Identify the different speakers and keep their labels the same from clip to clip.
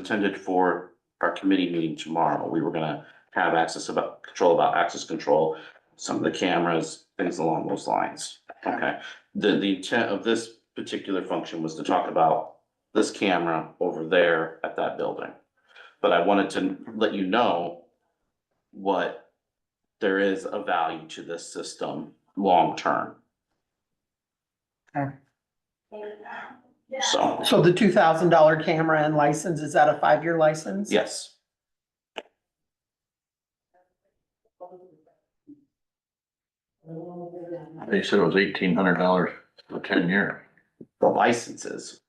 Speaker 1: intended for our committee meeting tomorrow. We were gonna have access about, control about access control, some of the cameras, things along those lines. Okay, the, the intent of this particular function was to talk about this camera over there at that building. But I wanted to let you know what there is a value to this system long-term, so,
Speaker 2: So the two thousand dollar camera and license, is that a five-year license?
Speaker 1: yes.
Speaker 3: They said it was eighteen hundred dollars for ten years.
Speaker 1: the licenses.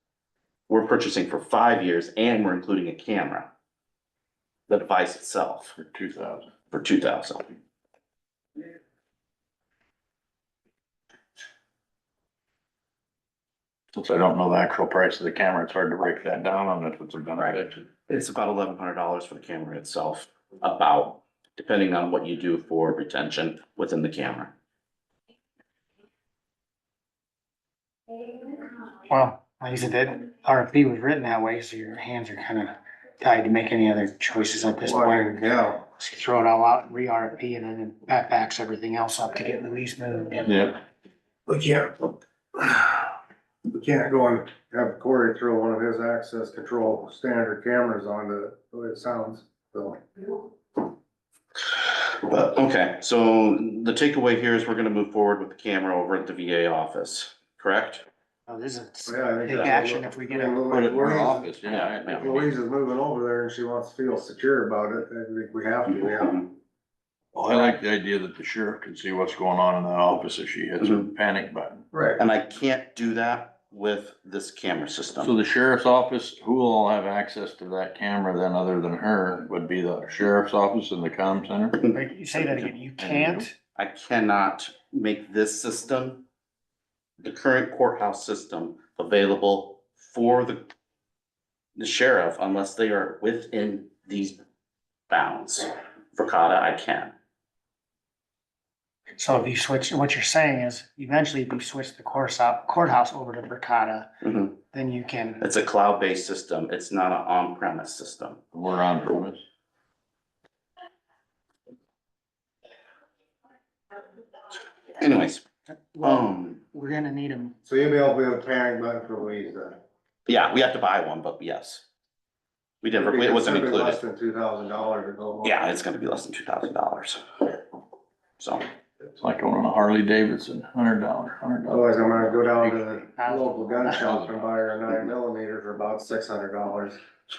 Speaker 1: We're purchasing for five years and we're including a camera. The device itself
Speaker 3: For two thousand.
Speaker 1: for two thousand.
Speaker 3: Since I don't know the actual price of the camera, it's hard to break that down on if it's a benefit.
Speaker 1: It's about eleven hundred dollars for the camera itself, about, depending on what you do for retention within the camera.
Speaker 4: Well, like I said, that RFP was written that way, so your hands are kind of tied to make any other choices at this point.
Speaker 5: Yeah.
Speaker 4: Just Throw it all out, re-RFP, and then that backs everything else up to get Louise moved.
Speaker 3: Yeah,
Speaker 5: We can't, we can't go and have Corey throw one of his access control standard cameras on the, the way it sounds, so.
Speaker 1: But, okay, so the takeaway here is we're gonna move forward with the camera over at the VA office, correct?
Speaker 4: So Oh, this is
Speaker 5: yeah, I think
Speaker 4: big
Speaker 5: that's-
Speaker 4: action if we get
Speaker 5: I
Speaker 4: it.
Speaker 5: mean,
Speaker 3: put it in our
Speaker 5: Louise,
Speaker 3: office, yeah.
Speaker 1: Yeah.
Speaker 5: Louise is moving over there and she wants to feel secure about it, I think we have to, we have to.
Speaker 3: Well, Oh, I like the idea that the sheriff can see what's going on in that office if she hits a
Speaker 1: Mhm.
Speaker 3: panic button.
Speaker 5: Right.
Speaker 1: And I can't do that with this camera
Speaker 3: So
Speaker 1: system.
Speaker 3: the sheriff's office, who will have access to that camera then other than her would be the sheriff's office and the comm center?
Speaker 4: Wait, You say that again, you can't?
Speaker 1: I cannot make this system, the current courthouse system, available for the the sheriff unless they are within these bounds. For CADA, I can.
Speaker 4: So if you switch, what you're saying is eventually if you switch the course out, courthouse over to Bricata,
Speaker 1: Mhm.
Speaker 4: then you can,
Speaker 1: It's a cloud-based system. It's not an on-premise system.
Speaker 3: We're on premise.
Speaker 1: Anyways,
Speaker 4: well,
Speaker 1: um,
Speaker 4: we're gonna need them.
Speaker 5: So you'll be able to be a panic button for Louise then.
Speaker 1: yeah, we have to buy one, but yes. We never, it wasn't
Speaker 5: It'd be Less
Speaker 1: included.
Speaker 5: than two thousand dollars to go.
Speaker 1: Yeah, it's gonna be less than two thousand dollars. So,
Speaker 3: It's like going on a Harley Davidson, hundred dollar, hundred dollar.
Speaker 5: Otherwise, I'm gonna go down to the local gun shop and buy her a nine millimeter for about six hundred dollars,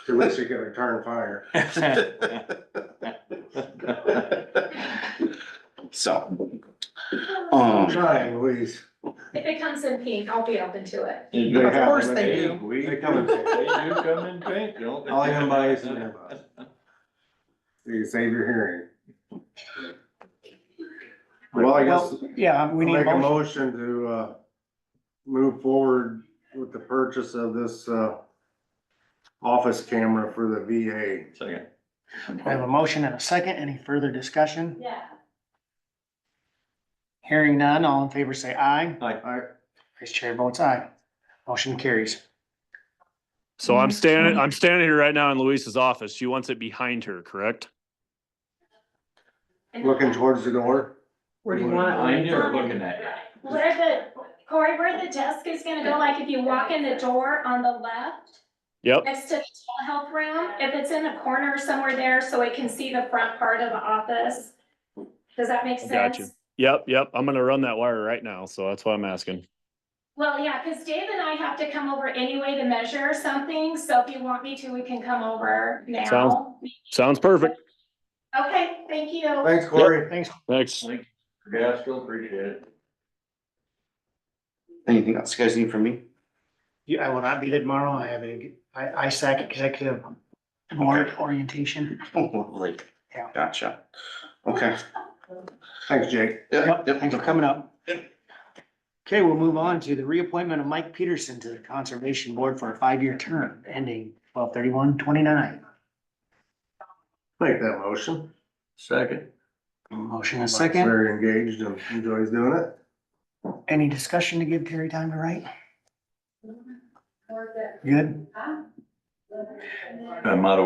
Speaker 5: to which she can return fire.
Speaker 1: so. Um,
Speaker 5: Trying, Louise.
Speaker 6: If it comes in pink, I'll be open to it.
Speaker 2: Of course they do.
Speaker 5: They come in pink.
Speaker 3: do come in pink, don't
Speaker 5: All I can buy is an earbud. You save your hearing. Well, I guess,
Speaker 4: Well, yeah, we need a
Speaker 5: make a
Speaker 4: motion.
Speaker 5: motion to, uh, move forward with the purchase of this, uh, office camera for the VA.
Speaker 3: Second.
Speaker 4: I have a motion and a second. Any further discussion?
Speaker 6: Yeah.
Speaker 4: Hearing none, all in favor say aye.
Speaker 5: I,
Speaker 4: Vice Chair votes aye. Motion carries.
Speaker 7: So I'm standing, I'm standing here right now in Louise's office. She wants it behind her, correct?
Speaker 5: looking towards the door.
Speaker 2: Where do you want it?
Speaker 6: you're looking at it. Where the, Corey, where the desk is gonna go, like if you walk in the door on the left,
Speaker 7: Yep.
Speaker 6: next to the telehealth room, if it's in the corner somewhere there, so it can see the front part of the office. Does that make sense?
Speaker 7: Gotcha. Yep. Yep. I'm going to run that wire right now. So that's why I'm asking.
Speaker 6: Well, yeah, cause Dave and I have to come over anyway to measure something, so if you want me to, we can come over now.
Speaker 7: Sounds- Sounds perfect.
Speaker 6: Okay, thank you.
Speaker 5: Thanks, Corey.
Speaker 4: Thanks.
Speaker 7: Thanks.
Speaker 3: Yeah, I still appreciate it.
Speaker 1: anything else you guys need from me?
Speaker 4: You- I will not be there tomorrow. I have a, I, ISAC executive board orientation.
Speaker 1: Oh, lovely.
Speaker 4: Yeah.
Speaker 1: Gotcha. Okay.
Speaker 5: Thanks, Jake.
Speaker 4: Yep, thanks for coming up. Okay, we'll move on to the reappointment of Mike Peterson to the Conservation Board for a five-year term ending twelve thirty-one twenty-nine.
Speaker 5: Make that motion.
Speaker 3: Second.
Speaker 4: Motion and a second.
Speaker 5: Very engaged and enjoys doing it.
Speaker 4: Any discussion to give Terry time to write? Good?
Speaker 6: I'm out of